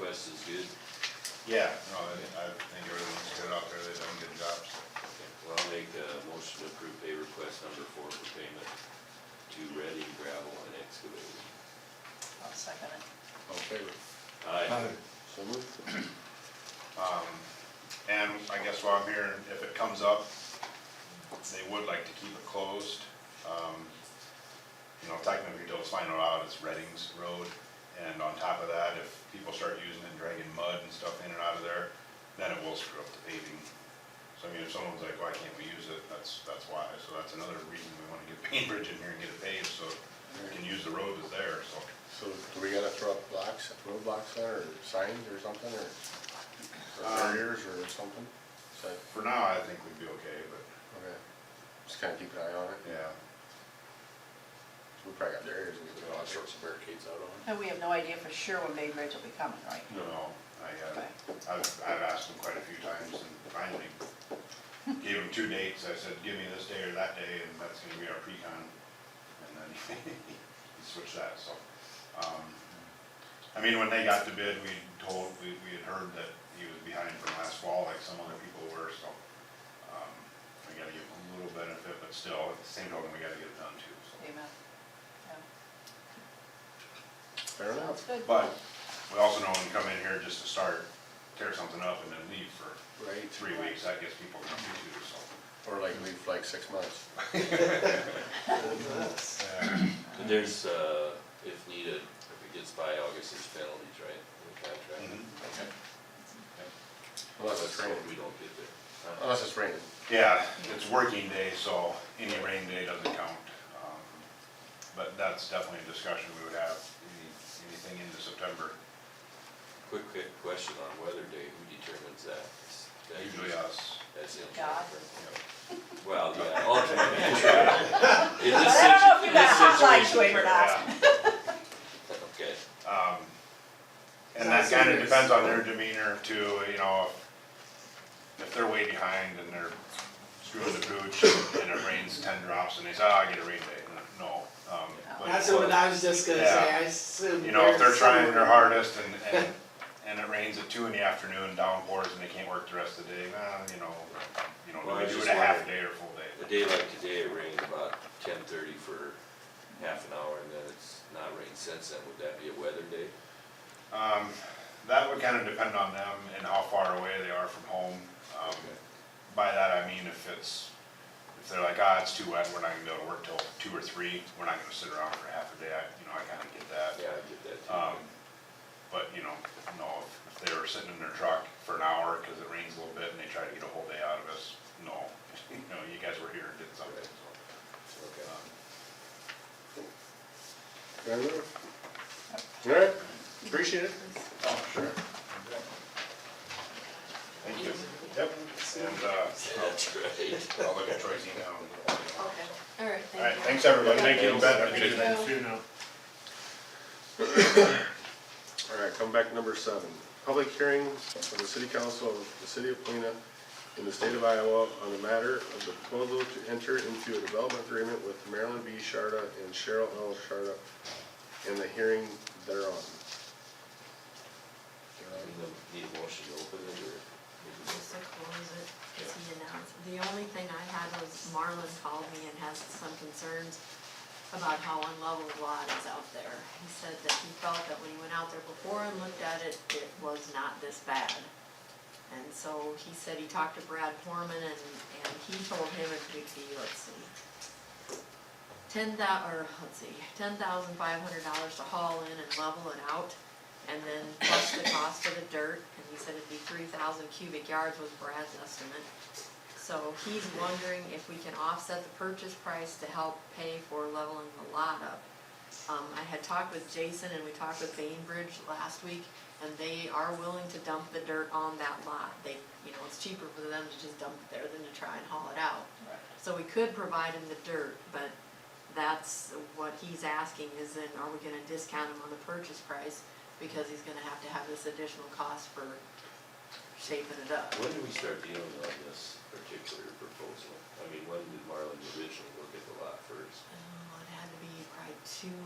West is good. Yeah, no, I, I think everyone's good out there, they done good jobs. Well, I'll make a motion to approve pay request number four for payment to Ready Gravel and Excavating. I'll second it. All in favor? Aye. So moved. Um, and I guess while I'm here, if it comes up, they would like to keep it closed. Um, you know, technically, they'll find it out, it's Reddings Road, and on top of that, if people start using it, dragging mud and stuff in and out of there, then it will screw up the paving. So I mean, if someone's like, why can't we use it, that's, that's why, so that's another reason we wanna get Bainbridge in here and get it paved, so we can use the road that's there, so. So do we gotta throw up blocks, road blocks there, or signs or something, or or Um, barriers or something? So, For now, I think we'd be okay, but, okay, just kinda keep an eye on it. yeah, We probably got barriers, we could put all sorts of barricades out on. And we have no idea for sure when Bay Bridge will be coming, right? no, no, I, uh, Okay. I've, I've asked them quite a few times and finally gave them two dates. I said, give me this day or that day and that's gonna be our pre-con. And then he switched that, so. um, I mean, when they got the bid, we told, we, we had heard that he was behind from last fall like some other people were, so. um, We gotta give him a little benefit, but still, at the same token, we gotta get it done too, so. Amen. Fair Yeah. Sounds enough. good. But we also know when you come in here just to start, tear something up and then leave for Right. three weeks, that gets people grumpy too, so. Or like leave for like six months. And there's, uh, if needed, if it gets by August, there's penalties, right, in the contract? Unless it's So raining. We don't get there. Huh? Unless it's raining. Yeah, it's working day, so any rain day doesn't count. Um, But that's definitely a discussion we would have, any- anything into September, Quick, quick question on weather day, who determines that? Is that usually us. That's the. God. Well, yeah, ultimately, sure. In this I situ- don't know if you in got this a hotline situation, to it or not. Yeah. Okay, Um, And that kinda depends on their demeanor too, you know, if- if they're way behind and they're screwing the pooch and it rains ten drops and they say, oh, I get a rain day, no. um, but- That's what I was just gonna say, I assume. You know, if they're trying their somewhere- hardest and, and, and it rains at two in the afternoon, downpours and they can't work the rest of the day, nah, you know, you know, Well, I do just it a half wondered- day or full day. a day like today, it rained about ten thirty for half an hour, and then it's not rained since then, would that be a weather day? Um, that would kinda depend on them and how far away they are from home. Um, by that I mean if it's, if they're like, ah, it's too wet, we're not gonna be able to work till two or three, we're not gonna sit around for half a day, I, you know, I kinda get that. Yeah, I get that too. Um, but, you know, no, if- if they were sitting in their truck for an hour because it rains a little bit and they try to get a whole day out of us, no. You know, you guys were here and did something, so. Okay. um, Fair enough. All right, appreciate it. Oh, sure. Thank you. Yep. And, uh, That's right. I'll look at Troy's email. All Okay. All right, thank you. right, thanks, everybody. Thank you. Ben, have a good Thank day. you. All right, come back to number seven. Public hearing of the city council of the city of Plena in the state of Iowa on the matter of the proposal to enter into a development agreement with Marilyn B. Sharda and Cheryl L. Sharda and the hearing thereon. Need a motion to open it, or? Just to close it, as he announced, the only thing I had was Marlon called me and has some concerns about how unleveled lot is out there. He said that he felt that when he went out there before and looked at it, it was not this bad. And so he said he talked to Brad Foreman and, and he told him it would be, let's see, ten thou, or let's see, ten thousand five hundred dollars to haul in and level it out. And then plus the cost of the dirt, and he said it'd be three thousand cubic yards was Brad's estimate. So he's wondering if we can offset the purchase price to help pay for leveling the lot up. Um, I had talked with Jason and we talked with Bainbridge last week, and they are willing to dump the dirt on that lot. They, you know, it's cheaper for them to just dump it there than to try and haul it out. So we could provide him the dirt, but that's what he's asking is then are we gonna discount him on the purchase price? Because he's gonna have to have this additional cost for shaping it up. When do we start dealing on this particular proposal? I mean, when did Marlin originally look at the lot first? Oh, it had to be probably two,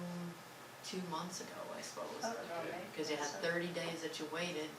two months ago, I suppose. Oh, okay. Oh, Cause you had thirty days that you waited